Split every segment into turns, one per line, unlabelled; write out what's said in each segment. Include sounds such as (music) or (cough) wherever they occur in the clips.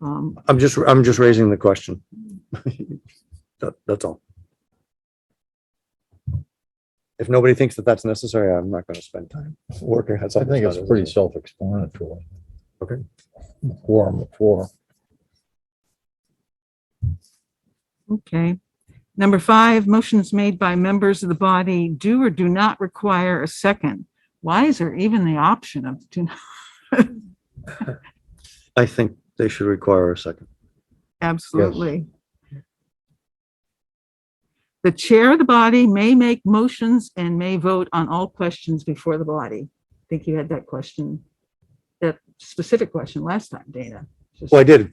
Um,
I'm just, I'm just raising the question. (laughs) That, that's all. If nobody thinks that that's necessary, I'm not gonna spend time working. on
I
something
think
that's
it's
not
pretty self-explanatory.
Okay.
Quorum of four.
okay. Number five, motions made by members of the body do or do not require a second. Why is there even the option of do not? (laughs)
I think they should require a second.
Absolutely. The chair of the body may make motions and may vote on all questions before the body. I think you had that question, that specific question last time, Dana. Just-
Well, I did,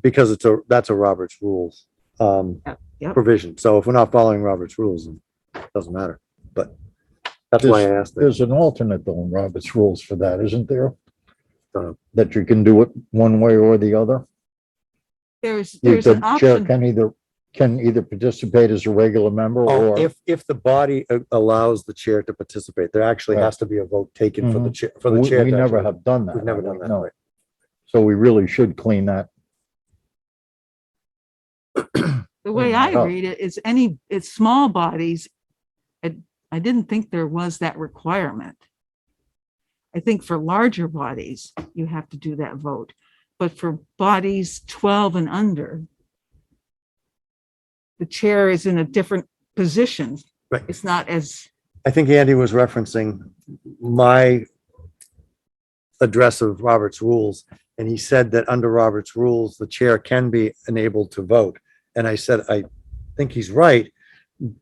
because it's a, that's a Roberts rules, um,
Yep, yep.
provision. So if we're not following Roberts rules, it doesn't matter, but that's why I asked. it.
There's an alternate though in Robert's rules for that, isn't there?
Don't know.
That you can do it one way or the other?
There's,
You-
there's an
The chair
option.
can either, can either participate as a regular member
Oh,
or
if, if the body a- allows the chair to participate, there actually has to be a vote taken for the chair, for
Mm-hmm. we
the chair.
we
to
never
actually-
have done that.
We've never done that.
No.
right.
So we really should clean that.
The way
Mm,
Yeah.
I
Oh.
read it is any, it's small bodies. I, I didn't think there was that requirement. I think for larger bodies, you have to do that vote, but for bodies twelve and under, the chair is in a different position.
Right.
It's not as,
I think Andy was referencing my address of Robert's rules, and he said that under Robert's rules, the chair can be enabled to vote. And I said, I think he's right,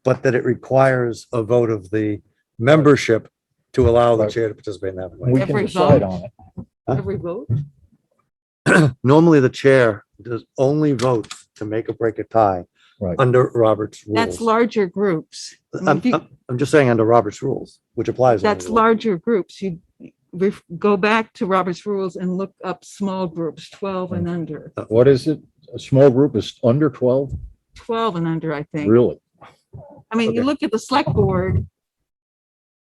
but that it requires a vote of the membership to allow the chair to participate in that. way.
We can
Every
decide
vote.
on it.
Huh?
every vote.
Normally, the chair does only votes to make or break a tie
Right.
under Robert's rules.
That's larger groups. I mean,
I'm,
if you-
I'm- I'm just saying under Robert's rules, which applies. only
That's
to-
larger groups. You ref- go back to Robert's rules and look up small groups, twelve and under,
What is it? A small group is under twelve?
twelve and under, I think.
Really?
I mean, you
Okay.
look at the select board,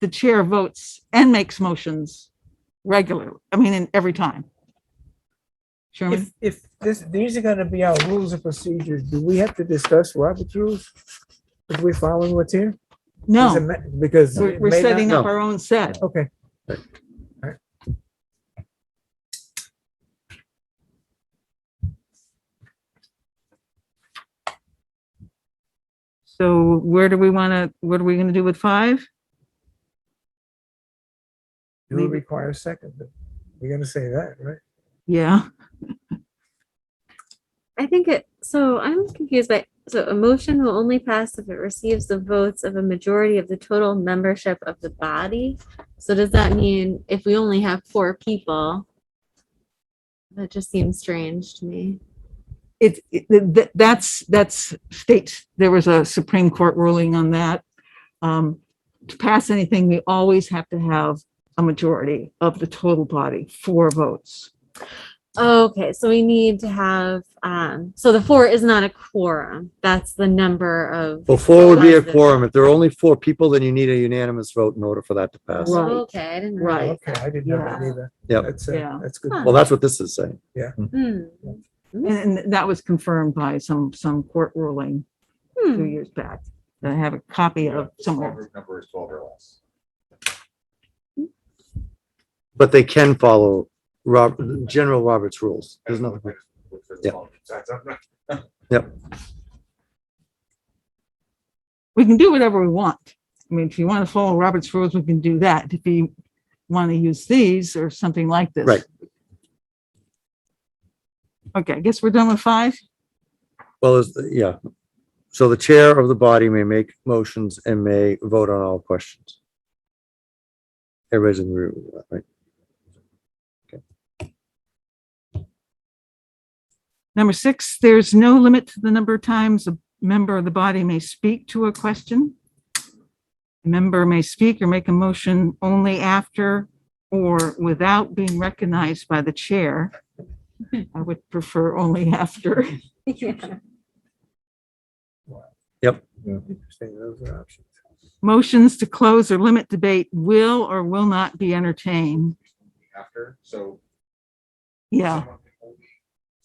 the chair votes and makes motions regularly, I mean, in every time. Sherman,
If, if this, these are gonna be our rules and procedures, do we have to discuss Robert's rules? If we're following what's here? Does it
no,
ma- Because.
we're,
it
we're
may not-
setting up
No.
our own set.
Okay,
So where do we want to, what are we going to do with five?
do we require a second? We're gonna say that, right?
Yeah,
I think it, so I'm confused by, so a motion will only pass if it receives the votes of a majority of the total membership of the body. So does that mean if we only have four people? That just seems strange to me.
it, it- th- th- that's, that's state, there was a Supreme Court ruling on that. Um, to pass anything, we always have to have a majority of the total body, four votes.
Okay, so we need to have, um, so the four is not a quorum. That's the number of.
Well, four would be a
President.
quorum. If there are only four people, then you need a unanimous vote in order for that to pass.
Right.
Okay, I didn't.
Right.
realize
Okay, I did not
Yeah.
believe that.
Yep.
That's, uh,
Yeah.
that's good.
Huh.
Well, that's what this is saying.
that. Hmm,
And, and that was confirmed by some, some court ruling a few
hmm.
years back. that I have a copy of somewhere.
But they can follow Rob, General Roberts rules. There's nothing. Yeah.
We can do whatever we want. I mean, if you want to follow Robert's rules, we can do that. If you want to use these or something like this.
Right.
Okay, I guess we're done with five.
Well, is, yeah. So the chair of the body may make motions and may vote on all questions. Everybody's in the room, right?
Number six, there's no limit to the number of times a member of the body may speak to a question. A member may speak or make a motion only after or without being recognized by the chair. I would prefer only after.
Yeah.
Interesting, those are options.
Motions to close or limit debate will or will not be entertained.
after, so.
Yeah,
someone-